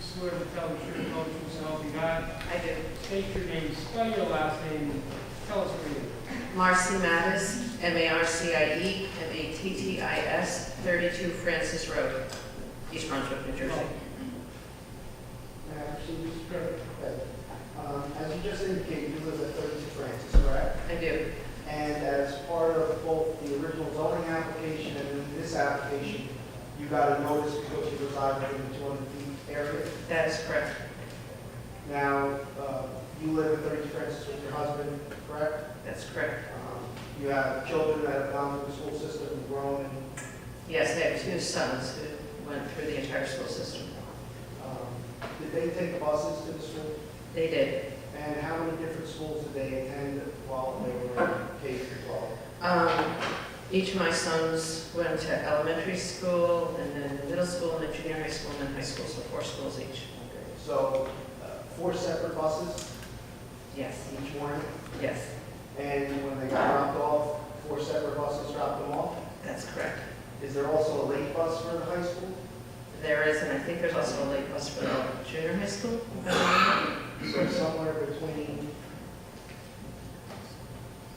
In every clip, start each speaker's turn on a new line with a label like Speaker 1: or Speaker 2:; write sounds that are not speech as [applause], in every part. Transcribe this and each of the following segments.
Speaker 1: swear to tell the truth, the whole truth, and all you got?
Speaker 2: I do.
Speaker 1: State your name, spell your last name, and tell us where you live.
Speaker 2: Marcy Mattis, M-A-R-C-I-E, M-A-T-T-I-S, 32 Francis Road, East Brunswick, New Jersey.
Speaker 3: Actually,
Speaker 1: Mr. Kirk.
Speaker 3: um, as you just indicated, you live at 32 Francis, correct?
Speaker 2: I do.
Speaker 3: And as part of both the original zoning application and then this application, you got a notice because you reside within the 200 feet area.
Speaker 2: That is correct.
Speaker 3: Now, uh, you live at 32 Francis with your husband, correct?
Speaker 2: That's correct.
Speaker 3: Um, You have children that have gone through the school system and grown, and
Speaker 2: Yes, I have two sons who went through the entire school system.
Speaker 3: um, did they take the buses to the school?
Speaker 2: They did.
Speaker 3: And how many different schools did they attend while they were K through 12?
Speaker 2: Um, Each of my sons went to elementary school, and then middle school, and then junior high school, and then high school, so four schools each.
Speaker 3: So, uh, four separate buses
Speaker 2: Yes,
Speaker 3: each morning,
Speaker 2: yes,
Speaker 3: and when they got dropped off, four separate buses dropped them off.
Speaker 2: that's correct.
Speaker 3: Is there also a late bus for the high school?
Speaker 2: There is, and I think there's also a late bus for the junior high school.
Speaker 3: So somewhere between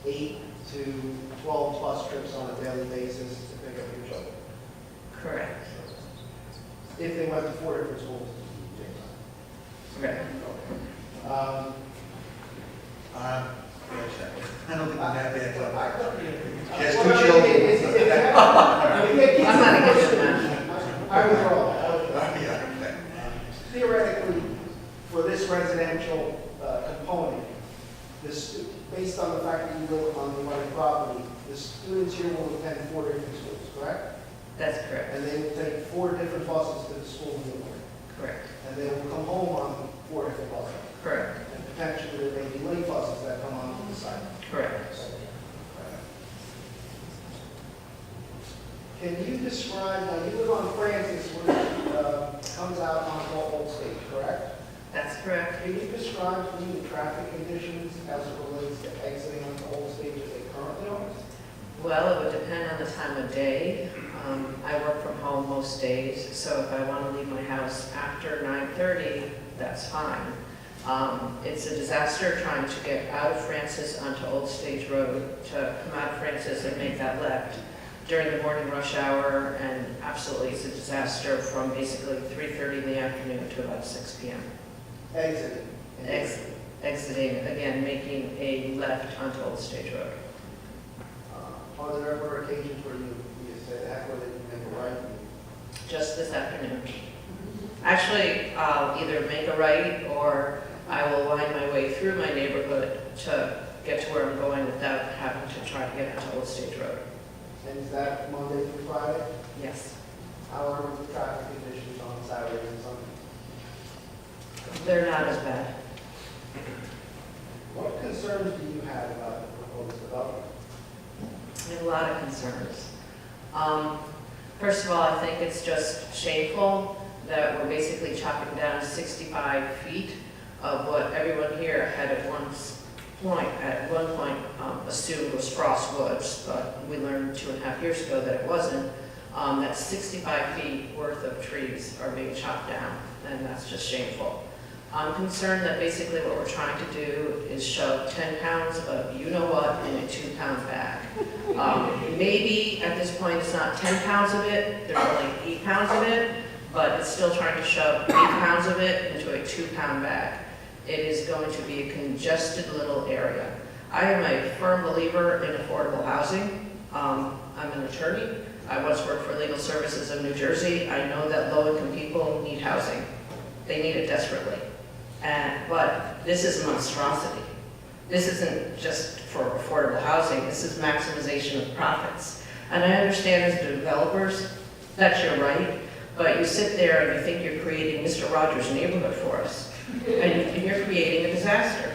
Speaker 3: eight to 12 bus trips on a daily basis to pick up your children,
Speaker 2: Correct.
Speaker 3: if they went to four different schools.
Speaker 2: Correct.
Speaker 3: Um,
Speaker 4: Uh, wait a second. I don't think I'm that bad, but
Speaker 3: I
Speaker 4: I-
Speaker 3: thought uh, you-
Speaker 4: Just
Speaker 3: Well,
Speaker 4: two
Speaker 3: no,
Speaker 4: children.
Speaker 3: it's- it's- it's- if they get
Speaker 2: I'm not against
Speaker 3: some-
Speaker 2: that.
Speaker 3: I was wrong.
Speaker 4: [laughs] yeah, okay.
Speaker 3: theoretically, for this residential uh, component, this, based on the fact that you live on the right property, the students here will attend four different schools, correct?
Speaker 2: That's correct.
Speaker 3: And they will take four different buses to the school in the morning,
Speaker 2: Correct.
Speaker 3: and they will come home on four different buses.
Speaker 2: Correct.
Speaker 3: And potentially, there may be late buses that come on the side.
Speaker 2: Correct.
Speaker 3: Can you describe, now you live on Francis, where it uh, comes out on Old State, correct?
Speaker 2: That's correct.
Speaker 3: Can you describe to me the traffic conditions as it relates to exiting on the old stage as they currently are?
Speaker 2: Well, it would depend on the time of day. Um, I work from home most days, so if I want to leave my house after 9:30, that's fine. Um, It's a disaster trying to get out of Francis onto Old Stage Road, to come out of Francis and make that left during the morning rush hour, and absolutely it's a disaster from basically 3:30 in the afternoon to about 6 PM.
Speaker 3: Exiting.
Speaker 2: Ex- Exiting, again, making a left onto Old Stage Road.
Speaker 3: Uh, Are there ever occasions where you, you said that, where you make a right?
Speaker 2: just this afternoon. Actually, I'll either make a right or I will wind my way through my neighborhood to get to where I'm going without having to try to get onto Old Stage Road.
Speaker 3: And is that Monday through Friday?
Speaker 2: Yes.
Speaker 3: How are the traffic conditions on Saturdays and Sundays?
Speaker 2: They're not as bad.
Speaker 3: What concerns do you have about the proposed development?
Speaker 2: I have a lot of concerns. Um, First of all, I think it's just shameful that we're basically chopping down 65 feet of what everyone here had at one s- point, at one point um, assumed was frost woods, but we learned two and a half years ago that it wasn't. Um, That 65 feet worth of trees are being chopped down, and that's just shameful. I'm concerned that basically what we're trying to do is shove 10 pounds of you-know-what in a two-pound bag. Um, Maybe at this point, it's not 10 pounds of it, there's only eight pounds of it, but it's still trying to shove eight pounds of it into a two-pound bag. It is going to be a congested little area. I am a firm believer in affordable housing. Um, I'm an attorney. I once worked for Legal Services of New Jersey. I know that low-income people need housing. They need it desperately. And, but this is a monstrosity. This isn't just for affordable housing, this is maximization of profits. And I understand as developers, that's your right, but you sit there and you think you're creating Mr. Rogers' neighborhood for us, and you're creating a disaster.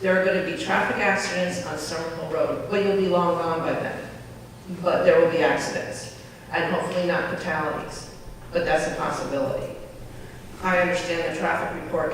Speaker 2: There are going to be traffic accidents on Somerville Road, well, you'll be long gone by then, but there will be accidents, and hopefully not fatalities, but that's a possibility. I understand the traffic report